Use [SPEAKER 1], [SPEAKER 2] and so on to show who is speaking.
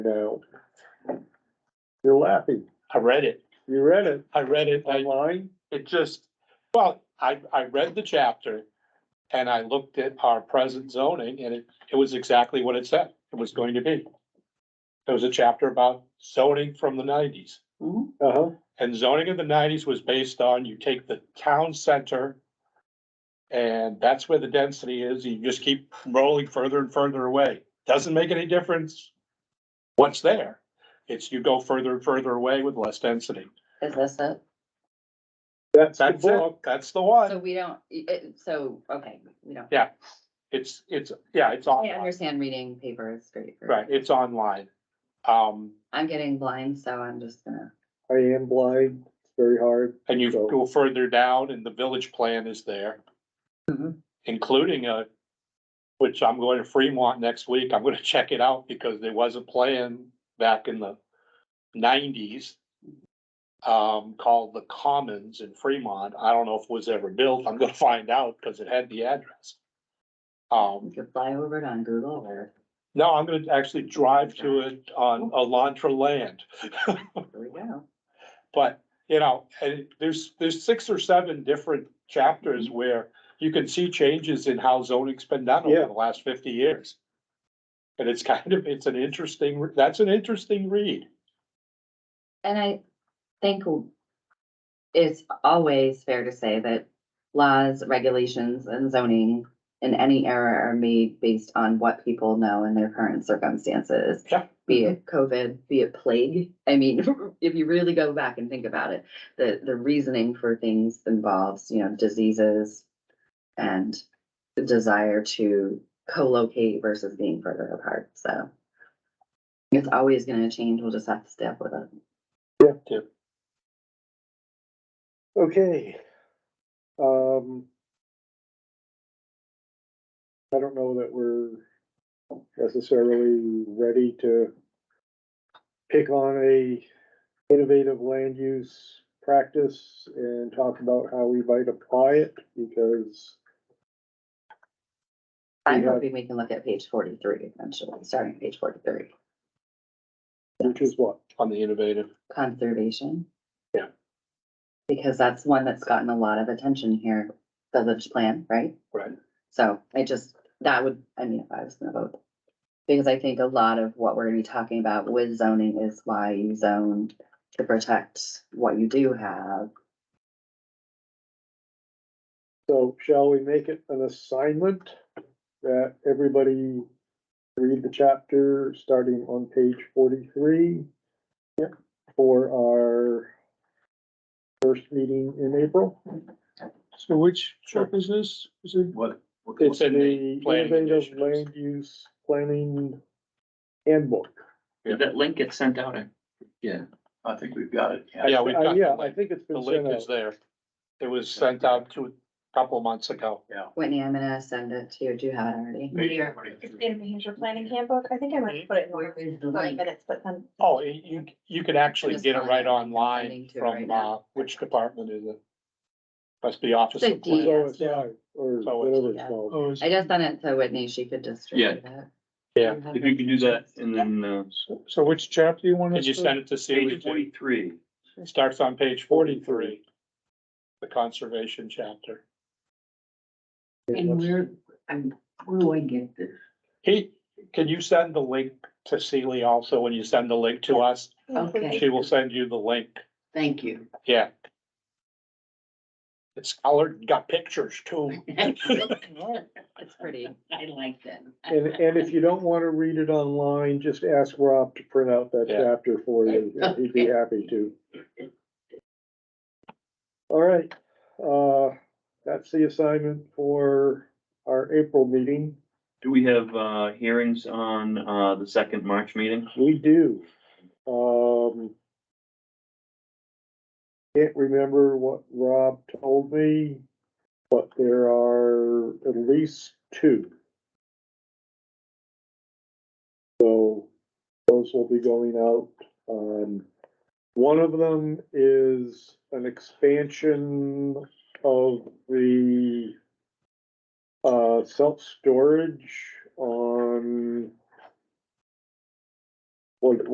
[SPEAKER 1] No. You're laughing.
[SPEAKER 2] I read it.
[SPEAKER 1] You read it
[SPEAKER 2] I read it. I,
[SPEAKER 1] online?
[SPEAKER 2] it just, well, I, I read the chapter and I looked at our present zoning and it, it was exactly what it said it was going to be. There was a chapter about zoning from the nineties. Mm-hmm.
[SPEAKER 1] Uh-huh.
[SPEAKER 2] And zoning in the nineties was based on you take the town center. And that's where the density is. You just keep rolling further and further away. Doesn't make any difference. What's there? It's you go further and further away with less density.
[SPEAKER 3] Is this it?
[SPEAKER 1] That's the
[SPEAKER 2] That's it.
[SPEAKER 1] book.
[SPEAKER 2] That's the
[SPEAKER 3] So
[SPEAKER 2] one.
[SPEAKER 3] we don't, i- i- so, okay, we don't,
[SPEAKER 2] It's, it's, yeah, it's
[SPEAKER 3] I
[SPEAKER 2] online.
[SPEAKER 3] understand reading paper is straightforward.
[SPEAKER 2] Right, it's online. Um,
[SPEAKER 3] I'm getting blind, so I'm just gonna,
[SPEAKER 1] I am blind. It's very hard.
[SPEAKER 2] and you
[SPEAKER 1] So-
[SPEAKER 2] go further down and the village plan is there. Mm-hmm.
[SPEAKER 3] Mhm.
[SPEAKER 2] Including a, which I'm going to Fremont next week. I'm gonna check it out because there was a plan back in the nineties. Um, called the Commons in Fremont. I don't know if it was ever built. I'm gonna find out because it had the address. Um,
[SPEAKER 3] you could fly over it on Google or.
[SPEAKER 2] no, I'm gonna actually drive to it on Elantra Land.
[SPEAKER 3] There we go.
[SPEAKER 2] But, you know, and there's, there's six or seven different chapters
[SPEAKER 1] Mm-hmm.
[SPEAKER 2] where you can see changes in how zoning's been done
[SPEAKER 1] Yeah.
[SPEAKER 2] over the last fifty years. And it's kind of, it's an interesting, that's an interesting read.
[SPEAKER 3] And I think it's always fair to say that laws, regulations, and zoning in any era are made based on what people know in their current circumstances.
[SPEAKER 2] Yeah.
[SPEAKER 3] Be it COVID, be it plague. I mean, if you really go back and think about it, the, the reasoning for things involves, you know, diseases and the desire to co-locate versus being further apart, so. It's always gonna change. We'll just have to stay up with it.
[SPEAKER 1] Okay. Um. I don't know that we're necessarily ready to pick on a innovative land use practice and talk about how we might apply it because
[SPEAKER 3] I'm
[SPEAKER 1] Yeah.
[SPEAKER 3] hoping we can look at page forty-three eventually, starting at page forty-three,
[SPEAKER 1] which is what?
[SPEAKER 2] On the innovative,
[SPEAKER 3] conservation.
[SPEAKER 2] Yeah.
[SPEAKER 3] Because that's one that's gotten a lot of attention here, village plan, right?
[SPEAKER 2] right?
[SPEAKER 3] So I just, that would, I mean, if I was gonna vote. Because I think a lot of what we're gonna be talking about with zoning is why you zone to protect what you do have.
[SPEAKER 1] So shall we make it an assignment that everybody read the chapter starting on page forty-three? For our first meeting in April?
[SPEAKER 4] So which
[SPEAKER 2] Sure.
[SPEAKER 4] trip is this? Is it?
[SPEAKER 5] What?
[SPEAKER 1] It's
[SPEAKER 2] in
[SPEAKER 1] in
[SPEAKER 2] the
[SPEAKER 1] the
[SPEAKER 2] planning
[SPEAKER 1] innovative
[SPEAKER 2] initiatives.
[SPEAKER 1] land use planning handbook.
[SPEAKER 4] Did that link get sent out? I-
[SPEAKER 5] I think we've got it.
[SPEAKER 1] I-
[SPEAKER 2] Yeah, Oh, we've
[SPEAKER 1] I-
[SPEAKER 2] got
[SPEAKER 1] Yeah,
[SPEAKER 2] the
[SPEAKER 1] I
[SPEAKER 2] link.
[SPEAKER 1] think it's uh,
[SPEAKER 2] The
[SPEAKER 1] been
[SPEAKER 2] link
[SPEAKER 1] sent
[SPEAKER 2] is
[SPEAKER 1] out.
[SPEAKER 2] there. It was sent out two, a couple of months ago.
[SPEAKER 3] Whitney, I'm gonna send it to you. Do you have it already?
[SPEAKER 5] Yeah.
[SPEAKER 6] It's in the Hampshire Planning Handbook. I think I might put it in
[SPEAKER 3] Where
[SPEAKER 6] the
[SPEAKER 3] is the
[SPEAKER 6] twenty
[SPEAKER 3] link?
[SPEAKER 6] minutes, but then.
[SPEAKER 2] Oh, y- you, you can actually
[SPEAKER 3] Just
[SPEAKER 2] get it
[SPEAKER 3] find
[SPEAKER 2] right
[SPEAKER 3] it. I'm
[SPEAKER 2] online
[SPEAKER 3] sending to it right
[SPEAKER 2] from, uh,
[SPEAKER 3] now.
[SPEAKER 2] which department is it? Must be Office
[SPEAKER 3] The
[SPEAKER 2] of
[SPEAKER 3] D.
[SPEAKER 2] Plan.
[SPEAKER 1] So it's live, or
[SPEAKER 2] So it's-
[SPEAKER 1] whatever it's
[SPEAKER 3] Yeah.
[SPEAKER 1] called.
[SPEAKER 4] Oh, is-
[SPEAKER 3] I just sent it to Whitney. She could distribute it.
[SPEAKER 2] Yeah.
[SPEAKER 5] If you could do that and then, uh,
[SPEAKER 4] so which chapter you want us
[SPEAKER 2] Did
[SPEAKER 4] to?
[SPEAKER 2] you send it to Celia
[SPEAKER 5] page
[SPEAKER 2] too?
[SPEAKER 5] forty-three.
[SPEAKER 2] Starts on page forty-three. The conservation chapter.
[SPEAKER 1] And where?
[SPEAKER 2] He, can you send the link to Celia also when you send the link to us? She will send you the link.
[SPEAKER 7] Thank you.
[SPEAKER 2] Yeah. It's colored, got pictures too.
[SPEAKER 3] It's pretty.
[SPEAKER 7] I like that.
[SPEAKER 1] And, and if you don't wanna read it online, just ask Rob to print out that
[SPEAKER 2] Yeah.
[SPEAKER 1] chapter for you, and he'd be happy to. All right, uh, that's the assignment for our April meeting.
[SPEAKER 5] Do we have, uh, hearings on, uh, the second March meeting?
[SPEAKER 1] We do, um. Can't remember what Rob told me, but there are at least two. So those will be going out, um, one of them is an expansion of the. Uh, self-storage on Like,